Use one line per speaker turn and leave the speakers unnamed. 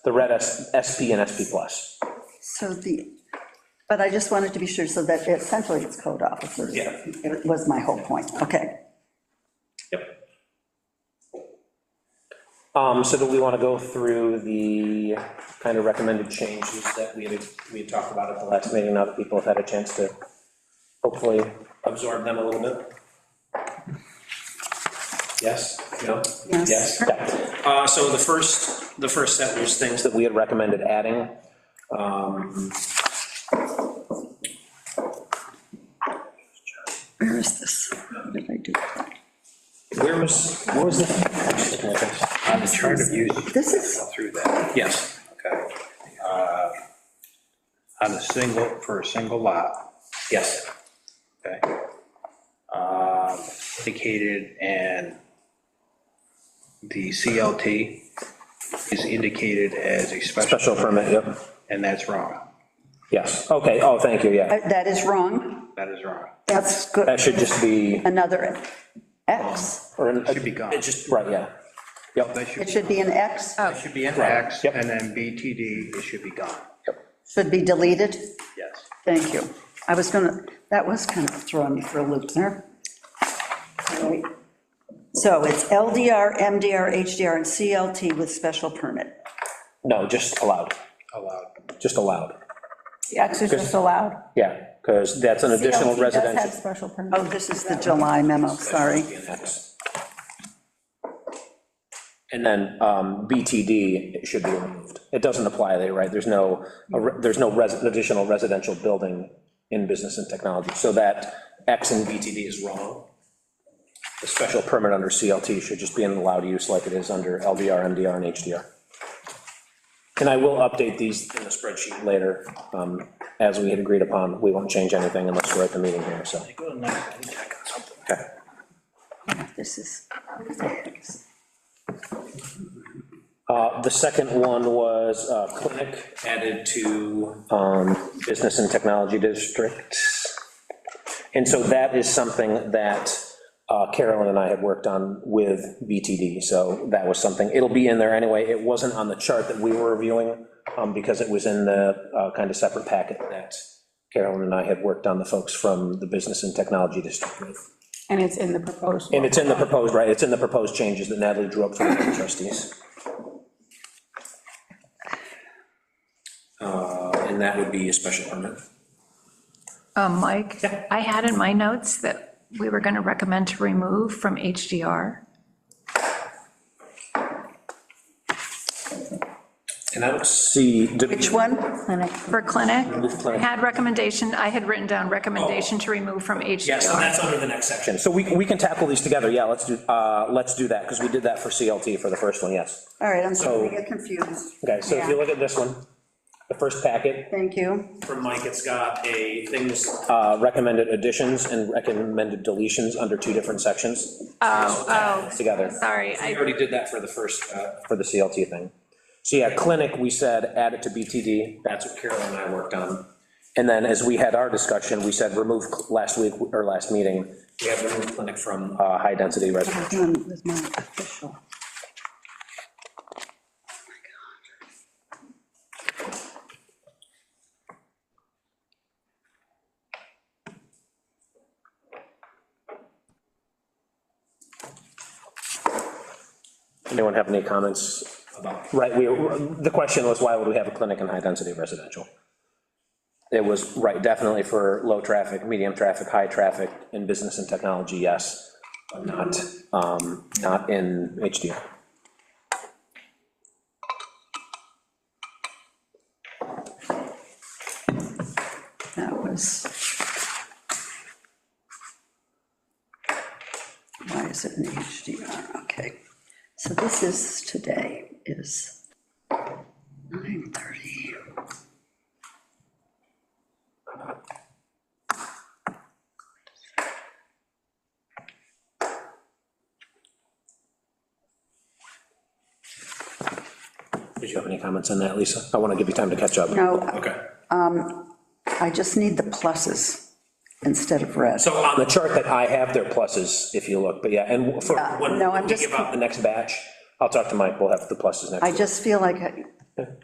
the red S- SP and SP plus.
So the, but I just wanted to be sure, so that essentially it's code officers.
Yeah.
It was my whole point, okay.
Yep. Um, so do we want to go through the kind of recommended changes that we had, we had talked about at the last meeting, now that people have had a chance to hopefully absorb them a little bit? Yes, no?
Yes.
Yeah. Uh, so the first, the first set was things that we had recommended adding. Um,
Where is this? What did I do?
Where was, what was the?
On the chart of use.
This is-
Through that,
Yes.
okay. Uh, On a single, for a single lot,
Yes.
okay. Um, Indicated and the CLT is indicated as a
Special
special,
permit, yep.
and that's wrong.
Yes, okay, oh, thank you, yeah.
Uh, That is wrong.
That is wrong.
That's good.
That should just be,
Another X.
or an-
Should be gone.
It just, right, yeah. Yep,
That should,
It should be an X,
that should be in X,
Yep.
and then BTD, it should be gone.
should be deleted.
Yes.
Thank you. I was gonna, that was kind of throwing me for a loop there. Wait. So it's LDR, MDR, HDR, and CLT with special permit.
no, just allowed,
Allowed.
just allowed,
The X is just allowed.
yeah, because that's an additional
CLT does have
residential.
special permit.
Oh, this is the July memo, sorry.
Yes. And then um, BTD it should be removed. It doesn't apply there, right? There's no, a re- there's no res- additional residential building in business and technology, so that X in BTD is wrong. The special permit under CLT should just be an allowed use like it is under LDR, MDR, and HDR. And I will update these in the spreadsheet later, um, as we had agreed upon. We won't change anything unless we're at the meeting here, so.
Go to the next one, check on something.
Okay.
This is,
Uh, The second one was uh, clinic added to um, business and technology districts. And so that is something that uh, Carolyn and I had worked on with BTD, so that was something, it'll be in there anyway. It wasn't on the chart that we were reviewing, um, because it was in the uh, kind of separate packet that Carolyn and I had worked on, the folks from the business and technology district. with.
And it's in the proposed.
And it's in the proposed, right, it's in the proposed changes that Natalie drew up for the trustees. Uh, And that would be a special permit.
Um, Mike, I had in my notes that we were going to recommend to remove from HDR.
And I don't see. did-
which one?
For clinic,
Remove
I
clinic.
had recommendation, I had written down recommendation to remove from HDR.
under the next section. So we, we can tackle these together, yeah, let's do, uh, let's do that, because we did that for CLT for the first one, yes.
All right, I'm sorry,
So-
I get confused.
Okay, so if you look at this one, the first packet,
Thank you.
from Mike, it's got a things. uh, Recommended additions and recommended deletions under two different sections.
Oh, oh,
Together.
sorry,
We
I,
already did that for the first, uh, for the CLT thing. So yeah, clinic, we said, add it to BTD, that's what Carolyn and I worked on. And then as we had our discussion, we said remove cl- last week, or last meeting. We have removed clinic from. Uh, high-density residential.
This one was my official.
Anyone have any comments about, right, we, the question was, why would we have a clinic in high-density residential? It was, right, definitely for low traffic, medium traffic, high traffic, in business and technology, yes, but not, um, not in HDR.
That was. Why is it in HDR? Okay. So this is, today is 9:30.
Did you have any comments on that, Lisa? I want to give you time to catch up.
No,
Okay.
um, I just need the pluses instead of red.
So on the chart that I have, there are pluses, if you look, but yeah, and for,
Yeah,
when
no, I'm
we
just-
give out the next batch, I'll talk to Mike, we'll have the pluses next.
I
week.
just feel like I-